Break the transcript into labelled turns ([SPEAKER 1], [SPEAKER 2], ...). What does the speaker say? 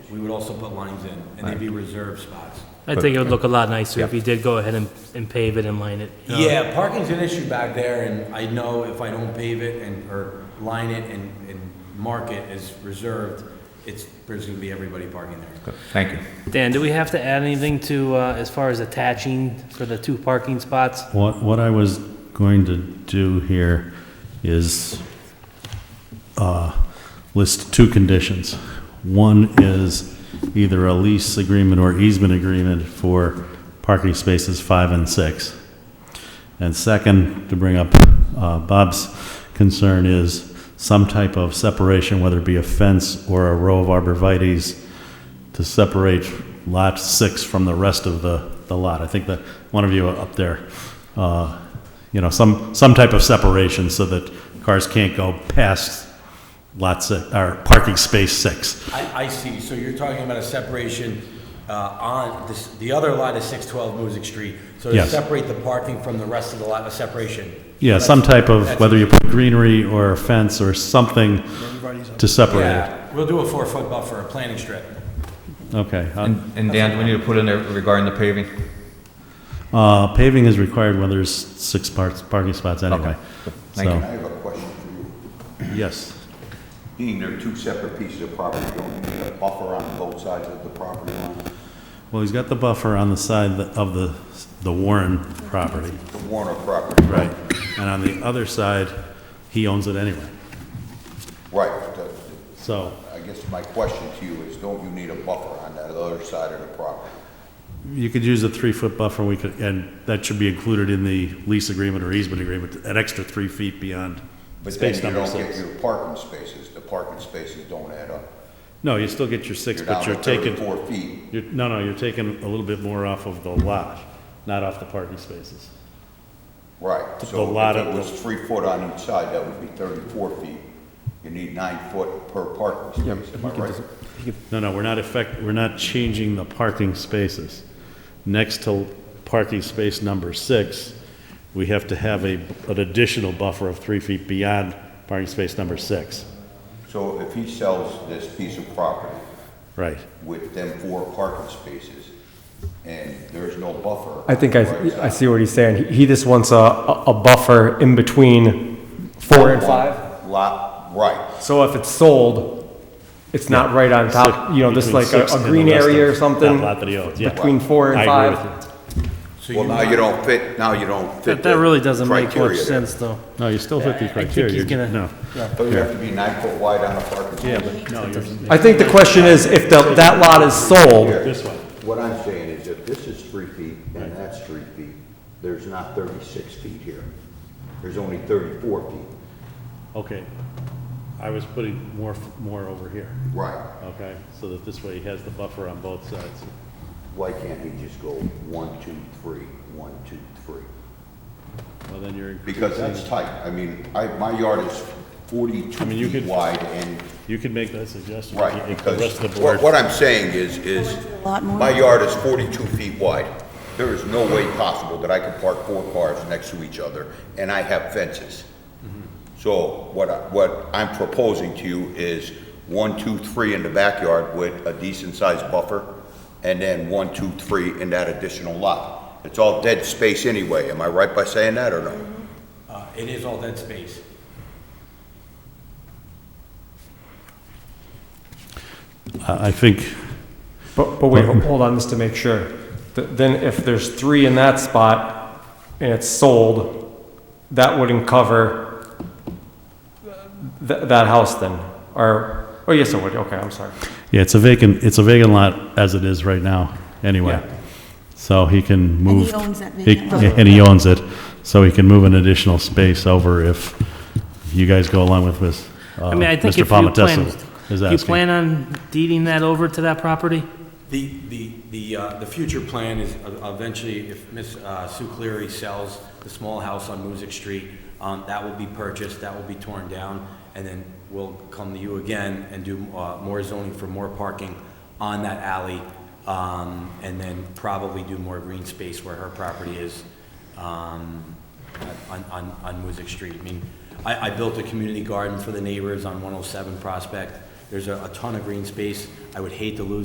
[SPEAKER 1] we would also put lines in, and they'd be reserved spots.
[SPEAKER 2] I think it would look a lot nicer if you did go ahead and, and pave it and line it. you know?
[SPEAKER 1] Yeah, uh, parking's an issue back there, and I know if I don't pave it and, or line it and, and mark it as reserved, it's, there's gonna be everybody parking there.
[SPEAKER 3] Thank you.
[SPEAKER 2] Dan, do we have to add anything to, uh, as far as attaching for the two parking spots?
[SPEAKER 4] What, what I was going to do here is uh, list two conditions. One is either a lease agreement or easement agreement for parking spaces five and six. And second, to bring up uh, Bob's concern, is some type of separation, whether it be a fence or a row of arborvitae's, to separate lot six from the rest of the, the lot. I think that one of you up there, uh, you know, some, some type of separation so that cars can't go past lot six, or parking space six.
[SPEAKER 1] I, I see, so you're talking about a separation, uh, on, this, the other lot is six twelve Music Street. So to
[SPEAKER 4] Yes.
[SPEAKER 1] separate the parking from the rest of the lot, a separation.
[SPEAKER 4] Yeah, some type of,
[SPEAKER 1] That's-
[SPEAKER 4] whether you put greenery or a fence or something to separate it.
[SPEAKER 1] Yeah, we'll do a four-foot buffer, a planning strip.
[SPEAKER 4] Okay. uh,
[SPEAKER 3] And and Dan, do we need to put in there regarding the paving?
[SPEAKER 4] Uh, paving is required when there's six parts, parking spots anyway.
[SPEAKER 3] Thank
[SPEAKER 4] So-
[SPEAKER 5] I have a question for you.
[SPEAKER 4] Yes.
[SPEAKER 5] Being they're two separate pieces of property, don't you need a buffer on both sides of the property line?
[SPEAKER 4] Well, he's got the buffer on the side of the, the Warren property.
[SPEAKER 5] The Warner property?
[SPEAKER 4] Right. And on the other side, he owns it anyway.
[SPEAKER 5] Right. The-
[SPEAKER 4] So,
[SPEAKER 5] I guess my question to you is, don't you need a buffer on that other side of the property?
[SPEAKER 4] you could use a three-foot buffer, we could, and that should be included in the lease agreement or easement agreement, an extra three feet beyond
[SPEAKER 5] But then
[SPEAKER 4] space
[SPEAKER 5] you
[SPEAKER 4] number
[SPEAKER 5] don't get
[SPEAKER 4] six.
[SPEAKER 5] your parking spaces, the parking spaces don't add up.
[SPEAKER 4] No, you still get your six, but you're
[SPEAKER 5] You're down to
[SPEAKER 4] taking,
[SPEAKER 5] 34 feet,
[SPEAKER 4] you're, no, no, you're taking a little bit more off of the lot, not off the parking spaces.
[SPEAKER 5] right.
[SPEAKER 4] The lot
[SPEAKER 5] So
[SPEAKER 4] of
[SPEAKER 5] if
[SPEAKER 4] the-
[SPEAKER 5] it was three foot on each side, that would be 34 feet. You need nine foot per parking space, am I right?
[SPEAKER 4] No, no, we're not affect, we're not changing the parking spaces. Next to parking space number six, we have to have a, an additional buffer of three feet beyond parking space number six.
[SPEAKER 5] So if he sells this piece of property,
[SPEAKER 4] Right.
[SPEAKER 5] with them four parking spaces, and there's no buffer.
[SPEAKER 6] I think I,
[SPEAKER 5] Right.
[SPEAKER 6] I see what he's saying. He- He just wants a, a a buffer in between four and five.
[SPEAKER 5] Lot, right,
[SPEAKER 6] So if it's sold, it's not right on top, you know, this
[SPEAKER 4] Between
[SPEAKER 6] like a,
[SPEAKER 4] six and
[SPEAKER 6] a
[SPEAKER 4] the
[SPEAKER 6] green
[SPEAKER 4] rest
[SPEAKER 6] area
[SPEAKER 4] of
[SPEAKER 6] or something.
[SPEAKER 4] that lot that he owns, yeah.
[SPEAKER 6] Between four and
[SPEAKER 4] I agree
[SPEAKER 6] five.
[SPEAKER 4] with
[SPEAKER 1] So
[SPEAKER 5] well,
[SPEAKER 1] you,
[SPEAKER 5] now you don't fit, now you don't fit
[SPEAKER 2] That, that really doesn't
[SPEAKER 5] the
[SPEAKER 2] make much
[SPEAKER 5] criteria there.
[SPEAKER 2] sense, though.
[SPEAKER 4] you. No, you still fit the
[SPEAKER 2] I- I think
[SPEAKER 4] criteria.
[SPEAKER 2] he's
[SPEAKER 4] You're-
[SPEAKER 2] gonna-
[SPEAKER 4] No.
[SPEAKER 5] So you have to be nine foot wide on a parking space.
[SPEAKER 4] but no, you're
[SPEAKER 6] I think the question is, if the, that lot is sold,
[SPEAKER 4] this one.
[SPEAKER 5] What I'm saying is if this is three feet and that's three feet, there's not thirty-six feet here. There's only thirty-four feet.
[SPEAKER 4] Okay. I was putting more, more over here,
[SPEAKER 5] Right.
[SPEAKER 4] okay? So that this way he has the buffer on both sides.
[SPEAKER 5] Why can't he just go one, two, three, one, two, three?
[SPEAKER 4] Well, then you're.
[SPEAKER 5] Because that's tight. I mean, I, my yard is
[SPEAKER 4] I
[SPEAKER 5] forty-two
[SPEAKER 4] mean, you
[SPEAKER 5] feet
[SPEAKER 4] could-
[SPEAKER 5] wide and
[SPEAKER 4] You can make that suggestion.
[SPEAKER 5] Right,
[SPEAKER 4] if The rest of
[SPEAKER 5] because
[SPEAKER 4] the board.
[SPEAKER 5] what what I'm saying is, is
[SPEAKER 7] a lot more.
[SPEAKER 5] my yard is 42 feet wide. There is no way possible that I could park four cars next to each other, and I have fences.
[SPEAKER 4] Mm-hmm.
[SPEAKER 5] So what, I- what I'm proposing to you is one, two, three in the backyard with a decent-sized buffer, and then one, two, three in that additional lot. It's all dead space anyway. Am I right by saying that or no?
[SPEAKER 1] uh, it is all dead space.
[SPEAKER 4] I I think,
[SPEAKER 6] but, but wait, hold on, just to make sure. Th- Then if there's three in that spot and it's sold, that wouldn't cover th- that house then? Or, oh, yes, it would, okay, I'm sorry.
[SPEAKER 4] yeah, it's a vacant, it's a vacant lot as it is right now, anyway.
[SPEAKER 6] Yeah.
[SPEAKER 4] So he can
[SPEAKER 7] he
[SPEAKER 4] move.
[SPEAKER 7] owns that
[SPEAKER 4] he-
[SPEAKER 7] vacant lot.
[SPEAKER 4] And he owns it, so he can move an additional space over if you guys go along with this. uh,
[SPEAKER 2] I mean, I think if you plan, you plan on deeding that over to that property?
[SPEAKER 1] The, the, the, uh, the future plan is uh, eventually, if Ms. uh, Sue Cleary sells the small house on Music Street, um, that will be purchased, that will be torn down, and then we'll come to you again and do, uh, more zoning for more parking on that alley, um, and then probably do more green space where her property is, um, on, on, on Music Street. I mean, I, I built a oh community garden for the neighbors on 107 Prospect. There's a, a ton of green space. I would hate to lose